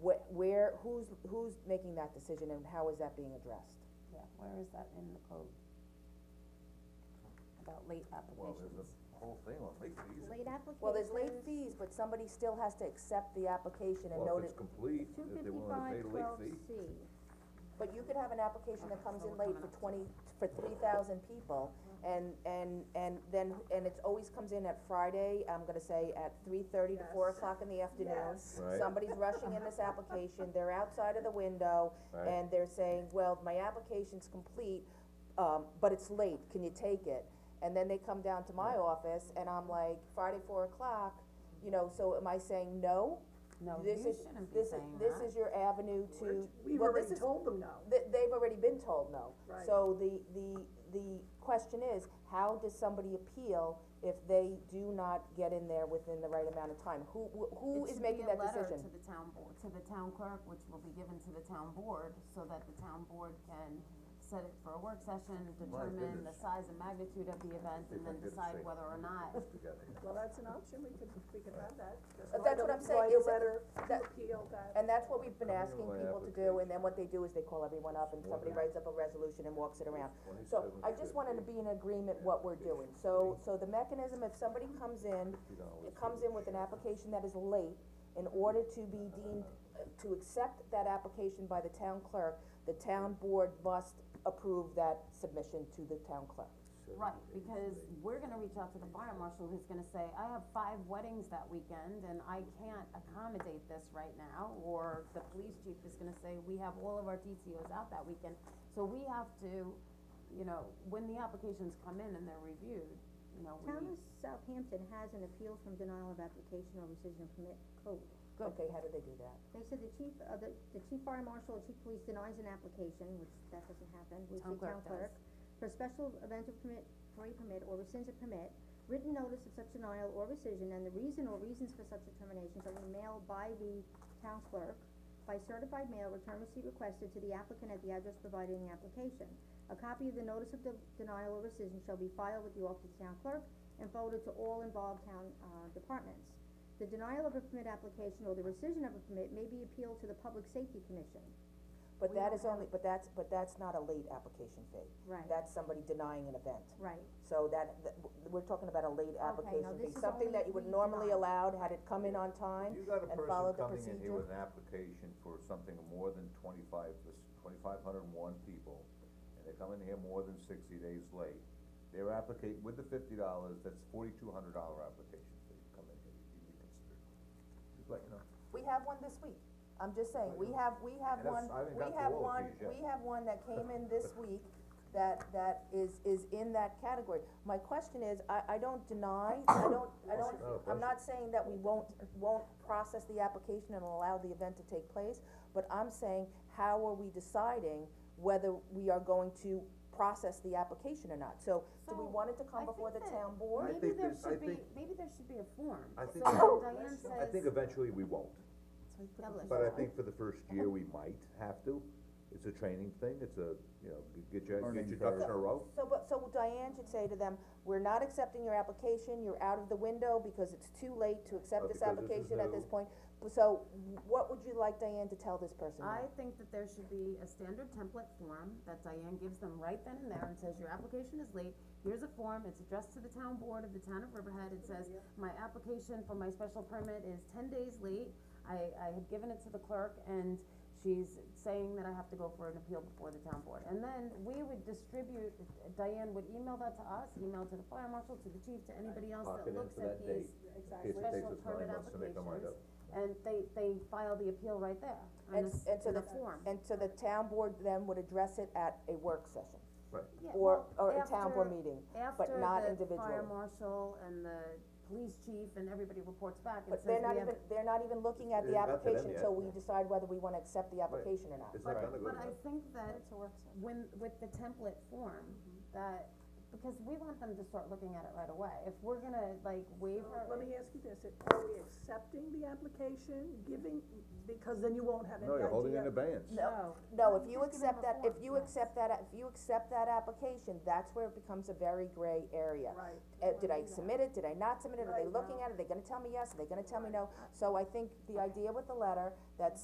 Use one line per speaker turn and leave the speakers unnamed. where, who's, who's making that decision and how is that being addressed?
Yeah, where is that in the code? About late
Well, there's
applications.
a whole thing on late fees.
Late applications.
Well, there's late fees, but somebody still has to accept the application and note
Well,
it,
if it's complete, if they're willing to pay the late fee.
C.
but you could have an application that comes in late for twenty, for three thousand people, and, and, and then, and it's always comes in at Friday, I'm gonna say at three thirty to four o'clock in the afternoon.
Right.
Somebody's rushing in this application, they're outside of the window,
Right.
and they're saying, well, my application's complete, um, but it's late, can you take it? And then they come down to my office, and I'm like, Friday, four o'clock, you know, so am I saying no?
No,
This
you
is-
shouldn't be
this is-
saying
This
that.
is your avenue to,
We've
well, this
already
is,
told them no.
th- they've already been told no.
Right.
So the, the, the question is, how does somebody appeal if they do not get in there within the right amount of time? Who, wh- who is making that
It
decision?
should be a letter to the town board, to the town clerk, which will be given to the town board, so that the town board can set it for a work session, determine the
goodness.
size and magnitude of the event, and
If I
then
didn't
decide
say-
whether or not
We got it.
Well, that's an option, we could, we could have that.
But
Just write
that's
a-
what I'm saying,
Write a
is it-
letter to
that-
appeal that.
And that's what we've been
Coming in
asking
my
people to do, and then what they do is they call everyone up and somebody writes up a resolution and walks it around. So I just wanted to be in agreement what we're doing, so, so the mechanism, if somebody comes in,
$50.
comes in with an application that is late, in order to be deemed, to accept that application by the town clerk, the town board must approve that submission to the town clerk.
Right, because we're gonna reach out to the fire marshal who's gonna say, I have five weddings that weekend and I can't accommodate this right now. Or the police chief is gonna say, we have all of our DCOs out that weekend, so we have to, you know, when the applications come in and they're reviewed, you know, we.
Town of Southampton has an appeal from denial of application or rescission of permit code.
Okay, how do they do that?
They said the chief, uh, the, the chief fire marshal or chief police denies an application, which that doesn't happen, which
Town
the town
clerk does.
clerk. For a special event of permit, for a permit or rescinds a permit, written notice of such denial or rescission and the reason or reasons for such determination shall be mailed by the town clerk by certified mail, return receipt requested to the applicant at the address provided in the application. A copy of the notice of de- denial or rescission shall be filed with the office of the town clerk and forwarded to all involved town, uh, departments. The denial of a permit application or the rescission of a permit may be appealed to the Public Safety Commission.
But
We
that
don't
is only, but that's, but that's not a late application fee.
Right.
That's somebody denying an event.
Right.
So that, that, we're talking about a late
now
application fee,
this is
something
only
that you would
we
normally
deny.
allowed, had it come in on time
You got a
and followed the procedure.
person coming in here with an application for something more than twenty-five, twenty-five hundred and one people, and they come in here more than sixty days late. Their applica- with the fifty dollars, that's forty-two hundred dollar application fee, you come in here, you can consider. Just let you know.
We have one this week, I'm just saying, we have, we have
And that's-
one,
I haven't
we
got to
have
all of
one,
these yet.
we have one that came in this week that, that is, is in that category. My question is, I, I don't deny, I don't, I don't,
No,
I'm not saying that we won't, won't process the application and allow the event to take place, but I'm saying, how are we deciding whether we are going to process the application or not? So, do we
So,
want it to
I
come before the
think that-
town board?
I
Maybe
think
there
there's- I
should be,
think-
maybe there should be a form,
I
so
think-
when Diane says.
I think eventually we won't,
Publish.
but I think for the first year, we might have to. It's a training thing, it's a, you know, get your, get your ducks in a row.
So, but, so Diane should say to them, we're not accepting your application, you're out of the window because it's too late to accept
Uh,
this
because this is
application at this
new.
point. So, what would you like Diane to tell this person now?
I think that there should be a standard template form that Diane gives them right then and there and says, your application is late, here's a form, it's addressed to the town board of the town of Riverhead, it says, my application for my special permit is ten days late, I, I had given it to the clerk and she's saying that I have to go for an appeal before the town board. And then we would distribute, Diane would email that to us, email to the fire marshal, to the chief, to anybody else
Lock
that
it in
looks
for
at
that
these
date, in
special
case
permit applications.
it takes us nine months to make our mind up.
And they, they file the appeal right there,
And-
on this,
and so
in a
the-
form.
And so the town board then would address it at a work session,
Right.
Yeah,
or,
well,
or a town board
after-
meeting, but not individually.
After the fire marshal and the police chief and everybody reports back and
But they're
says we
not
have.
even, they're not even looking at the
It's not to them
application
yet.
until we decide whether we wanna accept the application or not.
It's not gonna go
But I
to them.
think that when, with the template form, that, because we want them to start looking at it right away, if we're gonna like waiver.
Let me ask you this, are we accepting the application, giving, because then you won't have any
No,
idea.
you're holding in abeyance.
No, no, if you accept that, if you accept that, if you accept that application, that's where it becomes a very gray area.
Right.
Uh, did I submit it, did I not submit it, are they looking at it, are they gonna tell me yes, are they gonna tell me no? So I think the idea with the letter, that's